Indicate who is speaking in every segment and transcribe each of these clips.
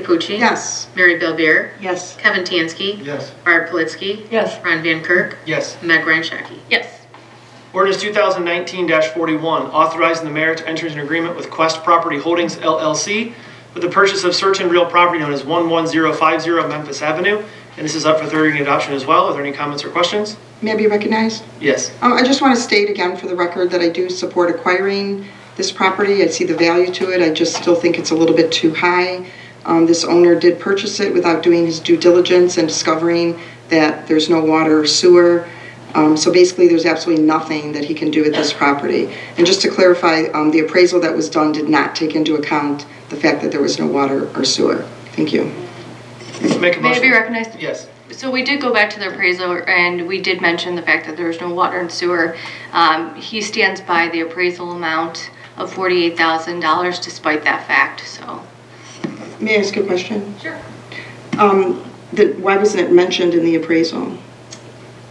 Speaker 1: Pucci.
Speaker 2: Yes.
Speaker 1: Mary Belbeer.
Speaker 2: Yes.
Speaker 1: Kevin Tansky.
Speaker 3: Yes.
Speaker 1: Barb Politzky.
Speaker 2: Yes.
Speaker 1: Ron Van Kirk.
Speaker 3: Yes.
Speaker 1: Meg Ryan Shaki.
Speaker 2: Yes.
Speaker 3: Ordinance 2019-41, authorizing the mayor to enter into an agreement with Quest Property Holdings LLC for the purchase of certain real property known as 11050 Memphis Avenue. And this is up for third reading and adoption as well. Are there any comments or questions?
Speaker 2: May I be recognized?
Speaker 3: Yes.
Speaker 2: Um, I just want to state again for the record that I do support acquiring this property. I see the value to it. I just still think it's a little bit too high. Um, this owner did purchase it without doing his due diligence and discovering that there's no water or sewer. Um, so basically, there's absolutely nothing that he can do with this property. And just to clarify, um, the appraisal that was done did not take into account the fact that there was no water or sewer. Thank you.
Speaker 3: Make a
Speaker 4: May I be
Speaker 3: motion.
Speaker 4: recognized?
Speaker 3: Yes.
Speaker 4: So we did go back to the appraisal and we did mention the fact that there was no water and sewer. Um, he stands by the appraisal amount of forty-eight thousand dollars despite that fact, so.
Speaker 2: May I ask a question?
Speaker 4: Sure.
Speaker 2: Um, that, why wasn't it mentioned in the appraisal?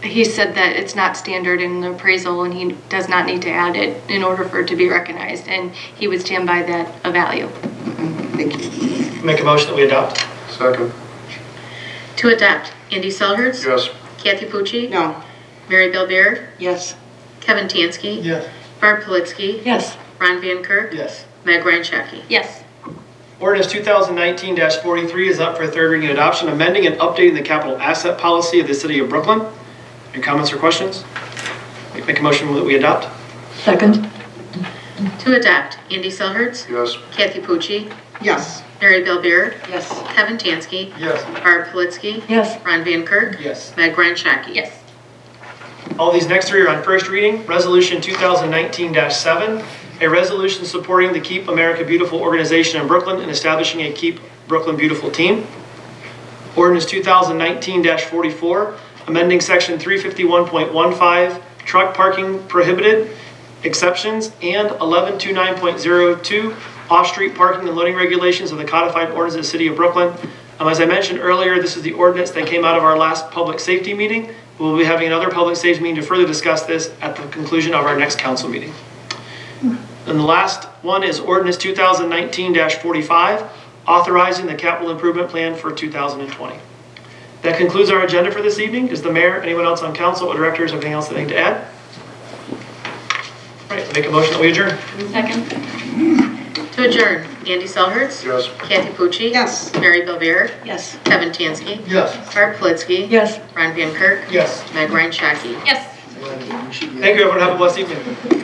Speaker 4: He said that it's not standard in the appraisal and he does not need to add it in order for it to be recognized and he would stand by that a value.
Speaker 2: Thank you.
Speaker 3: Make a motion that we adopt.
Speaker 5: Second,
Speaker 1: To adopt, Andy Selhertz.
Speaker 5: yes.
Speaker 1: Kathy Pucci.
Speaker 2: No.
Speaker 1: Mary Belbeer.
Speaker 2: Yes.
Speaker 1: Kevin Tansky.
Speaker 3: Yes.
Speaker 1: Barb Politzky.
Speaker 2: Yes.
Speaker 1: Ron Van Kirk.
Speaker 3: Yes.
Speaker 1: Meg Ryan Shaki.
Speaker 4: Yes.
Speaker 3: Ordinance 2019-43 is up for third reading and adoption, amending and updating the capital asset policy of the city of Brooklyn. Any comments or questions? Make- Make a motion that we adopt.
Speaker 6: Second,
Speaker 1: To adopt, Andy Selhertz.
Speaker 5: Yes.
Speaker 1: Kathy Pucci.
Speaker 2: Yes.
Speaker 1: Mary Belbeer.
Speaker 2: Yes.
Speaker 1: Kevin Tansky.
Speaker 3: Yes.
Speaker 1: Barb Politzky.
Speaker 6: yes,
Speaker 1: Ron Van Kirk.
Speaker 3: Yes.
Speaker 1: Meg Ryan Shaki.
Speaker 4: Yes.
Speaker 3: All these next three are on first reading. Resolution 2019-7, a resolution supporting the Keep America Beautiful organization in Brooklyn and establishing a Keep Brooklyn Beautiful team. Ordinance 2019-44, amending Section 351.15, truck parking prohibited exceptions, and 1129.02, off-street parking and loading regulations of the codified ordinance of the City of Brooklyn. Um, As I mentioned earlier, this is the ordinance that came out of our last public safety meeting. We'll be having another public safety meeting to further discuss this at the conclusion of our next council meeting. And the last one is ordinance 2019-45, authorizing the capital improvement plan for 2020. That concludes our agenda for this evening. Does the mayor, anyone else on council, or directors, anything else they need to add? All right, make a motion that we adjourn.
Speaker 4: Second?
Speaker 1: To adjourn, Andy Selhertz.
Speaker 5: Yes.
Speaker 1: Kathy Pucci.
Speaker 2: Yes.
Speaker 1: Mary Belbeer.
Speaker 2: Yes.
Speaker 1: Kevin Tansky.
Speaker 3: Yes.
Speaker 1: Barb Politzky.
Speaker 6: yes.
Speaker 1: Ron Van Kirk.
Speaker 3: Yes.
Speaker 1: Meg Ryan Shaki.
Speaker 4: Yes.
Speaker 3: Thank you, everyone. Have a blessed evening.